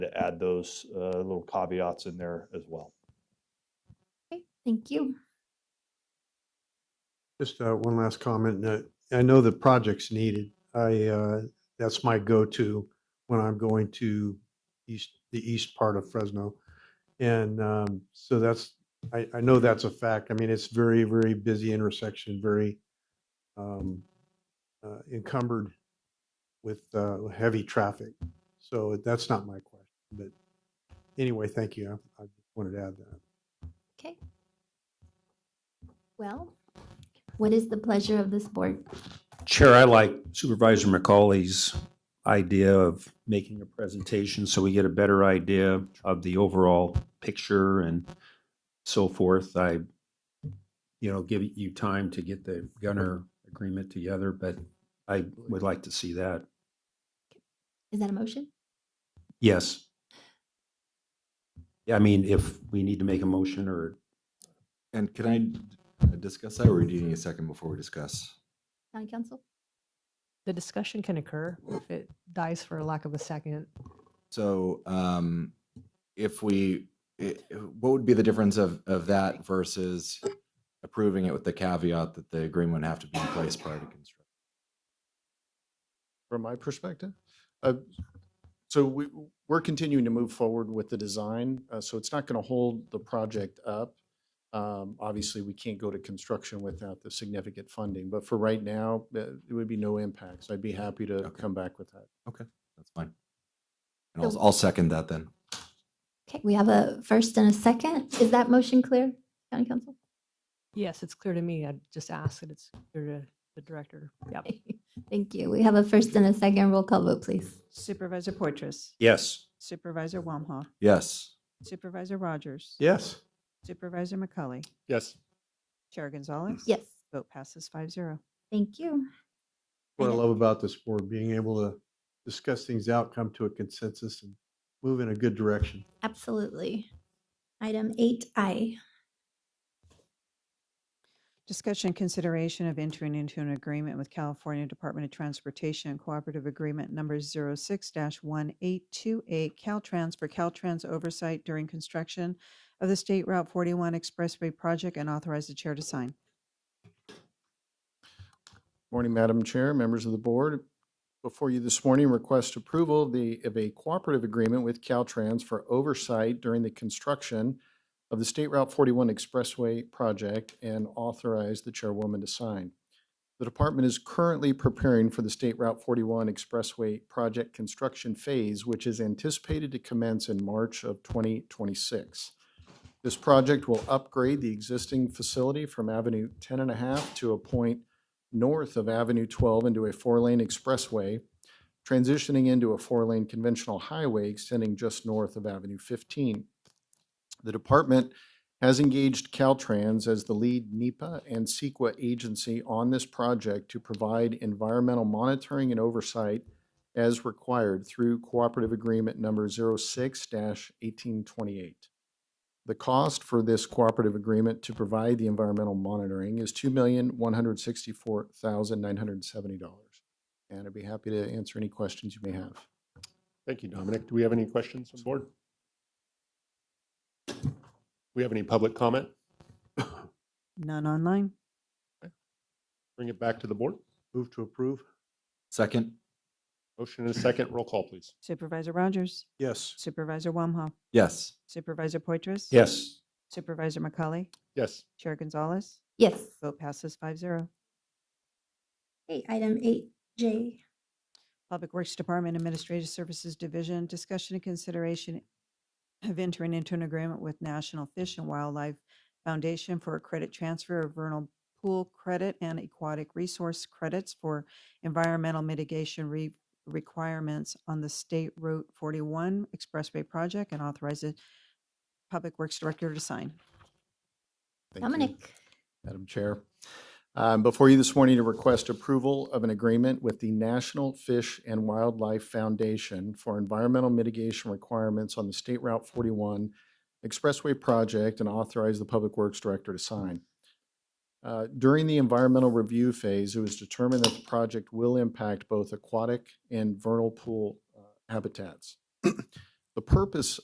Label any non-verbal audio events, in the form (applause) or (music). to add those uh, little caveats in there as well. Okay, Thank you. Just uh, one last comment. Uh, I know the project's needed. I, uh, that's my go-to when I'm going to east, the east part of Fresno. And um, so that's, I, I know that's a fact. I mean, it's very, very busy intersection, very um, uh, encumbered with uh, heavy traffic. So that's not my question, but anyway, thank you. I I wanted to add that. Okay. Well, what is the pleasure of this board? Chair, I like Supervisor McCauley's idea of making a presentation so we get a better idea of the overall picture and so forth. I, you know, give you time to get the Gunner agreement together, but I would like to see that. Is that a motion? Yes. Yeah, I mean, if we need to make a motion or, And can I d- uh, discuss that, or do you need a second before we discuss? County Council? The discussion can occur if it dies for lack of a second. So, um, if we, i- i- what would be the difference of, of that versus approving it with the caveat that the agreement would have to be in place prior to construction? from my perspective. Uh, So we, we're continuing to move forward with the design, uh, so it's not going to hold the project up. Um, Obviously, we can't go to construction without the significant funding, but for right now, uh, it would be no impact. So I'd be happy to Okay. come back with that. That's fine. And I'll, So- I'll second that then. Okay, we have a first and a second. Is that motion clear, County Council? (laughs) Yes, it's clear to me. I just asked that it's clear to the director. Yep. Thank you. We have a first and a second roll call vote, please. Supervisor Portress, yes. Supervisor Wamhaugh, Yes. Supervisor Rogers. Yes. Supervisor McCully, Yes. Chair Gonzalez. Yes, Vote passes five zero. thank you. what I And- love about this board, being able to discuss things out, come to a consensus and move in a good direction. Absolutely. Item eight I. Discussion and consideration of entering into an agreement with California Department of Transportation Cooperative Agreement Number 06-1828 Caltrans for Caltrans oversight during construction of the State Route 41 Expressway project and authorize the chair to sign. Morning, Madam Chair, members of the board. Before you this morning, request approval of the, of a cooperative agreement with Caltrans for oversight during the construction of the State Route 41 Expressway project and authorize the chairwoman to sign. The department is currently preparing for the State Route 41 Expressway project construction phase, which is anticipated to commence in March of 2026. This project will upgrade the existing facility from Avenue 10 and a half to a point north of Avenue 12 into a four-lane expressway, transitioning into a four-lane conventional highway extending just north of Avenue 15. The department has engaged Caltrans as the lead NEPA and CEQA agency on this project to provide environmental monitoring and oversight as required through Cooperative Agreement Number 06-1828. The cost for this cooperative agreement to provide the environmental monitoring is two million, one hundred sixty-four thousand, nine hundred and seventy dollars. And I'd be happy to answer any questions you may have. Thank you, Dominic. Do we have any questions from the board? We have any public comment? None online. Bring it back to the board. Move to approve? Second? Motion and a second. Roll call, please. Supervisor Rogers. Yes. Supervisor Wamhaugh, Yes. Supervisor Poitras. Yes. Supervisor McCully, Yes. Chair Gonzalez. Yes. Vote passes five zero. Okay, item eight J. Public Works Department Administrative Services Division, discussion and consideration of entering into an agreement with National Fish and Wildlife Foundation for a credit transfer of vernal pool credit and aquatic resource credits for environmental mitigation re- requirements on the State Route 41 Expressway project and authorize the Public Works Director to sign. Thank you. Dominic. Madam Chair. Um, Before you this morning to request approval of an agreement with the National Fish and Wildlife Foundation for environmental mitigation requirements on the State Route 41 Expressway project and authorize the Public Works Director to sign. Uh, During the environmental review phase, it was determined that the project will impact both aquatic and vernal pool uh, habitats. (clears throat) The purpose